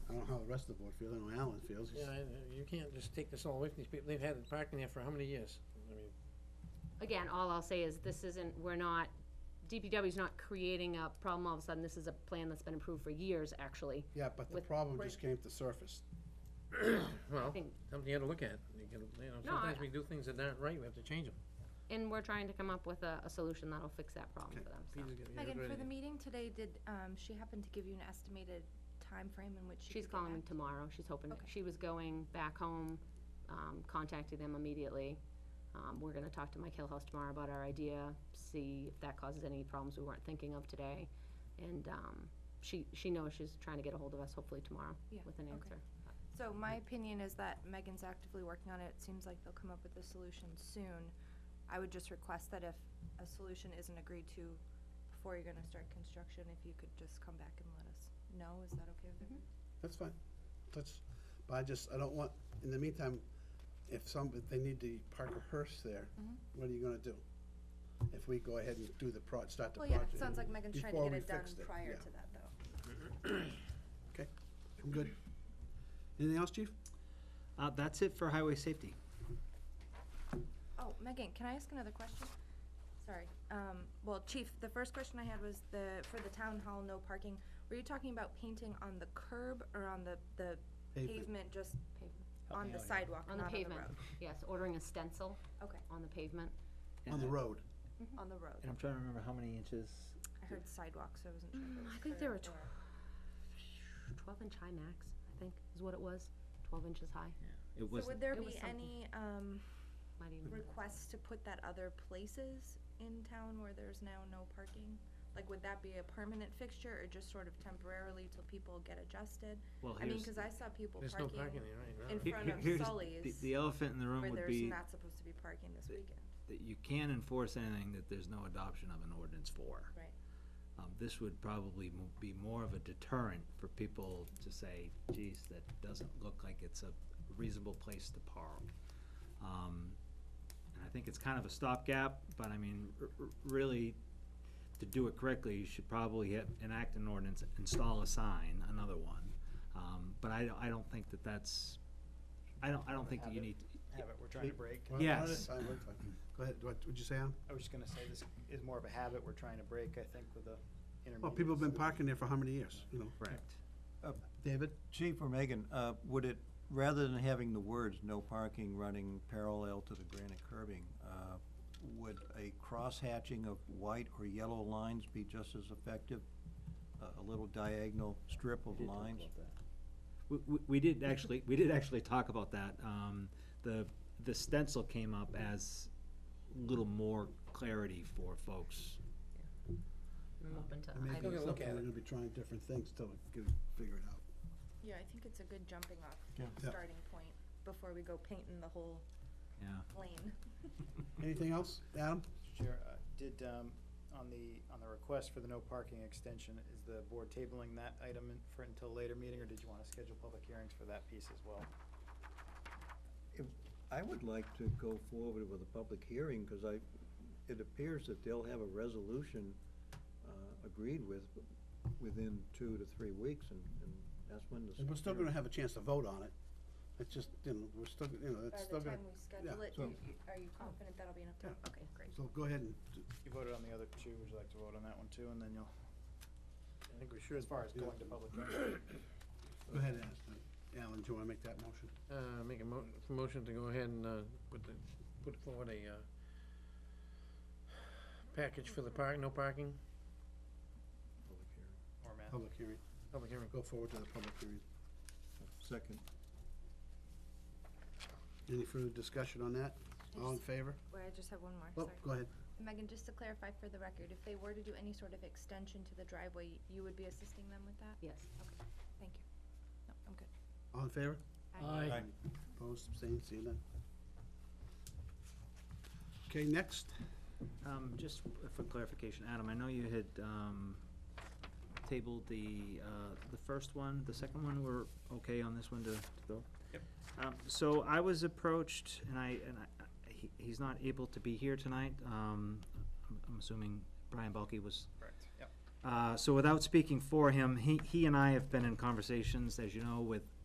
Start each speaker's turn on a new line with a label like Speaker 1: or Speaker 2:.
Speaker 1: rest of the board feels, I know Alan feels. he's-
Speaker 2: Yeah, I- you can't just take this all away from these people. They've had it parking there for how many years? I mean,
Speaker 3: Again, all I'll say is this isn't, we're not, DPW's not creating a problem all of a sudden. This is a plan that's been approved for years, actually.
Speaker 1: Yeah, but the
Speaker 3: With-
Speaker 1: problem just came to surface.
Speaker 3: I
Speaker 2: well,
Speaker 3: think,
Speaker 2: something you gotta look at. You can, you know,
Speaker 3: No,
Speaker 2: sometimes
Speaker 3: I-
Speaker 2: we do things that aren't right, we have to change them.
Speaker 3: and we're trying to come up with a, a solution that'll fix that problem for them, so.
Speaker 2: Peter's got- you got a
Speaker 4: Megan,
Speaker 2: great
Speaker 4: for the
Speaker 2: idea.
Speaker 4: meeting today, did, um, she happen to give you an estimated time frame in which she
Speaker 3: She's
Speaker 4: could get
Speaker 3: calling me
Speaker 4: back?
Speaker 3: tomorrow. She's hoping, to-
Speaker 4: Okay.
Speaker 3: she was going back home, um, contacted them immediately. Um, we're gonna talk to Mike Hillhouse tomorrow about our idea, see if that causes any problems we weren't thinking of today. And, um, she, she knows she's trying to get a hold of us hopefully tomorrow
Speaker 4: Yeah,
Speaker 3: with an
Speaker 4: okay.
Speaker 3: answer.
Speaker 4: So my opinion is that Megan's actively working on it. It seems like they'll come up with a solution soon. I would just request that if a solution isn't agreed to before you're gonna start construction, if you could just come back and let us know. Is that okay with everyone?
Speaker 1: That's fine. That's, but I just, I don't want, in the meantime, if some, if they need to park a hearse there,
Speaker 4: Mhm.
Speaker 1: what are you gonna do? If we go ahead and do the pro, start the
Speaker 4: Well,
Speaker 1: project.
Speaker 4: yeah, it sounds like Megan's trying to
Speaker 1: before
Speaker 4: get
Speaker 1: we
Speaker 4: it done
Speaker 1: fixed it,
Speaker 4: prior
Speaker 1: yeah.
Speaker 4: to that, though.
Speaker 1: I'm good. Anything else, chief?
Speaker 5: Uh, that's it for highway safety.
Speaker 4: Oh, Megan, can I ask another question? Sorry. Um, well, Chief, the first question I had was the, for the town hall, no parking. Were you talking about painting on the curb or on the, the
Speaker 1: Pavement.
Speaker 4: pavement, just
Speaker 3: Pavement.
Speaker 5: Help
Speaker 4: on
Speaker 5: me
Speaker 4: the
Speaker 5: out here.
Speaker 4: sidewalk,
Speaker 3: On
Speaker 4: not
Speaker 3: the
Speaker 4: on the road?
Speaker 3: pavement, yes, ordering a stencil
Speaker 4: Okay,
Speaker 3: on the pavement.
Speaker 1: On the road.
Speaker 3: Mm-hmm.
Speaker 4: on the road.
Speaker 5: And I'm trying to remember how many inches.
Speaker 4: I heard sidewalk, so I wasn't sure. if it
Speaker 3: Mm,
Speaker 4: was
Speaker 3: I think there
Speaker 4: curb
Speaker 3: were
Speaker 4: or-
Speaker 3: tw- twelve inch high max, I think, is what it was, twelve inches high,
Speaker 5: It
Speaker 4: So
Speaker 5: was,
Speaker 4: would there
Speaker 3: It was
Speaker 4: be
Speaker 3: something.
Speaker 4: any, um,
Speaker 3: might even.
Speaker 4: requests to put that other places in town where there's now no parking? Like, would that be a permanent fixture or just sort of temporarily till people get adjusted?
Speaker 5: well,
Speaker 4: I mean,
Speaker 5: here's,
Speaker 4: cause I saw people
Speaker 2: There's no parking
Speaker 4: parking
Speaker 2: there right now.
Speaker 4: in
Speaker 5: he-
Speaker 4: front
Speaker 5: he-
Speaker 4: of
Speaker 5: here's, the,
Speaker 4: Sully's
Speaker 5: the elephant in the room
Speaker 4: where
Speaker 5: would
Speaker 4: there's
Speaker 5: be
Speaker 4: not supposed to be parking this
Speaker 5: the-
Speaker 4: weekend.
Speaker 5: that you can enforce anything that there's no adoption of an ordinance for.
Speaker 4: Right.
Speaker 5: Um, this would probably mo- be more of a deterrent for people to say, geez, that doesn't look like it's a reasonable place to park. Um, and I think it's kind of a stopgap, but I mean, r- r- really, to do it correctly, you should probably have, enact an ordinance, install a sign, another one. Um, but I, don't- I don't think that that's, I don't, I don't think that you need,
Speaker 6: habit we're trying to break.
Speaker 1: Well, no, that's
Speaker 5: Yes.
Speaker 1: fine, we're fine. Go ahead, what, would you say, Alan?
Speaker 6: I was just gonna say, this is more of a habit we're trying to break, I think, with the intermediate.
Speaker 1: Well, people have been parking there for how many years, you know?
Speaker 5: correct.
Speaker 1: Uh,
Speaker 7: David? Chief or Megan, uh, would it, rather than having the words "no parking" running parallel to the granite curbing, uh, would a cross-hatching of white or yellow lines be just as effective? A- A little diagonal strip of lines?
Speaker 5: We, we, we did actually, we did actually talk about that. Um, the, the stencil came up as a little more clarity for folks.
Speaker 3: I'm open to,
Speaker 1: And Maybe
Speaker 3: I
Speaker 2: think-
Speaker 1: it's
Speaker 2: Look
Speaker 1: something
Speaker 2: at
Speaker 1: we're
Speaker 2: it.
Speaker 1: gonna be trying different things till we can figure it out.
Speaker 4: Yeah, I think it's a good jumping off
Speaker 7: Yeah.
Speaker 1: Yeah.
Speaker 4: starting point before we go painting the whole
Speaker 5: Yeah,
Speaker 4: lane.
Speaker 1: Anything else, Adam?
Speaker 6: Chair, uh, did, um, on the, on the request for the no parking extension, is the board tabling that item in- for until later meeting, or did you wanna schedule public hearings for that piece as well?
Speaker 7: I would like to go forward with a public hearing, because I, it appears that they'll have a resolution uh, agreed with within two to three weeks, and and that's when the.
Speaker 1: And we're still gonna have a chance to vote on it. It's just, you know, we're still, you know, it's
Speaker 4: By
Speaker 1: still
Speaker 4: the
Speaker 1: gonna,
Speaker 4: time we schedule it,
Speaker 7: so-
Speaker 4: you- you- are you confident that'll be enough time? Okay, great.
Speaker 1: so go ahead and, d-
Speaker 6: You voted on the other two, would you like to vote on that one too, and then you'll,
Speaker 2: I think we should.
Speaker 6: as far as going to public hearing?
Speaker 1: go ahead and ask them. Alan, do you wanna make that motion?
Speaker 2: Uh, make a mo- motion to go ahead and, uh, put the, put forward a, uh, package for the park, no parking,
Speaker 6: Or Matt?
Speaker 1: Public hearing,
Speaker 2: public hearing.
Speaker 1: go forward to the public hearing.
Speaker 7: Second.
Speaker 1: Any further discussion on that? All in favor?
Speaker 4: Wait, I just have one more,
Speaker 1: Oh,
Speaker 4: sorry.
Speaker 1: go ahead.
Speaker 4: Megan, just to clarify for the record, if they were to do any sort of extension to the driveway, you would be assisting them with that?
Speaker 3: yes.
Speaker 4: Thank you. No, I'm good.
Speaker 1: All in favor?
Speaker 2: Aye.
Speaker 1: Opposed, abstained, seeing none. Okay, next.
Speaker 5: um, just for clarification, Adam, I know you had, um, tabled the, uh, the first one, the second one, we're okay on this one to, to go?
Speaker 6: Yep.
Speaker 5: Um, so I was approached, and I, and I, he, he's not able to be here tonight, um, I'm I'm assuming Brian Balky was
Speaker 6: Correct, yep.
Speaker 5: Uh, so without speaking for him, he, he and I have been in conversations, as you know, with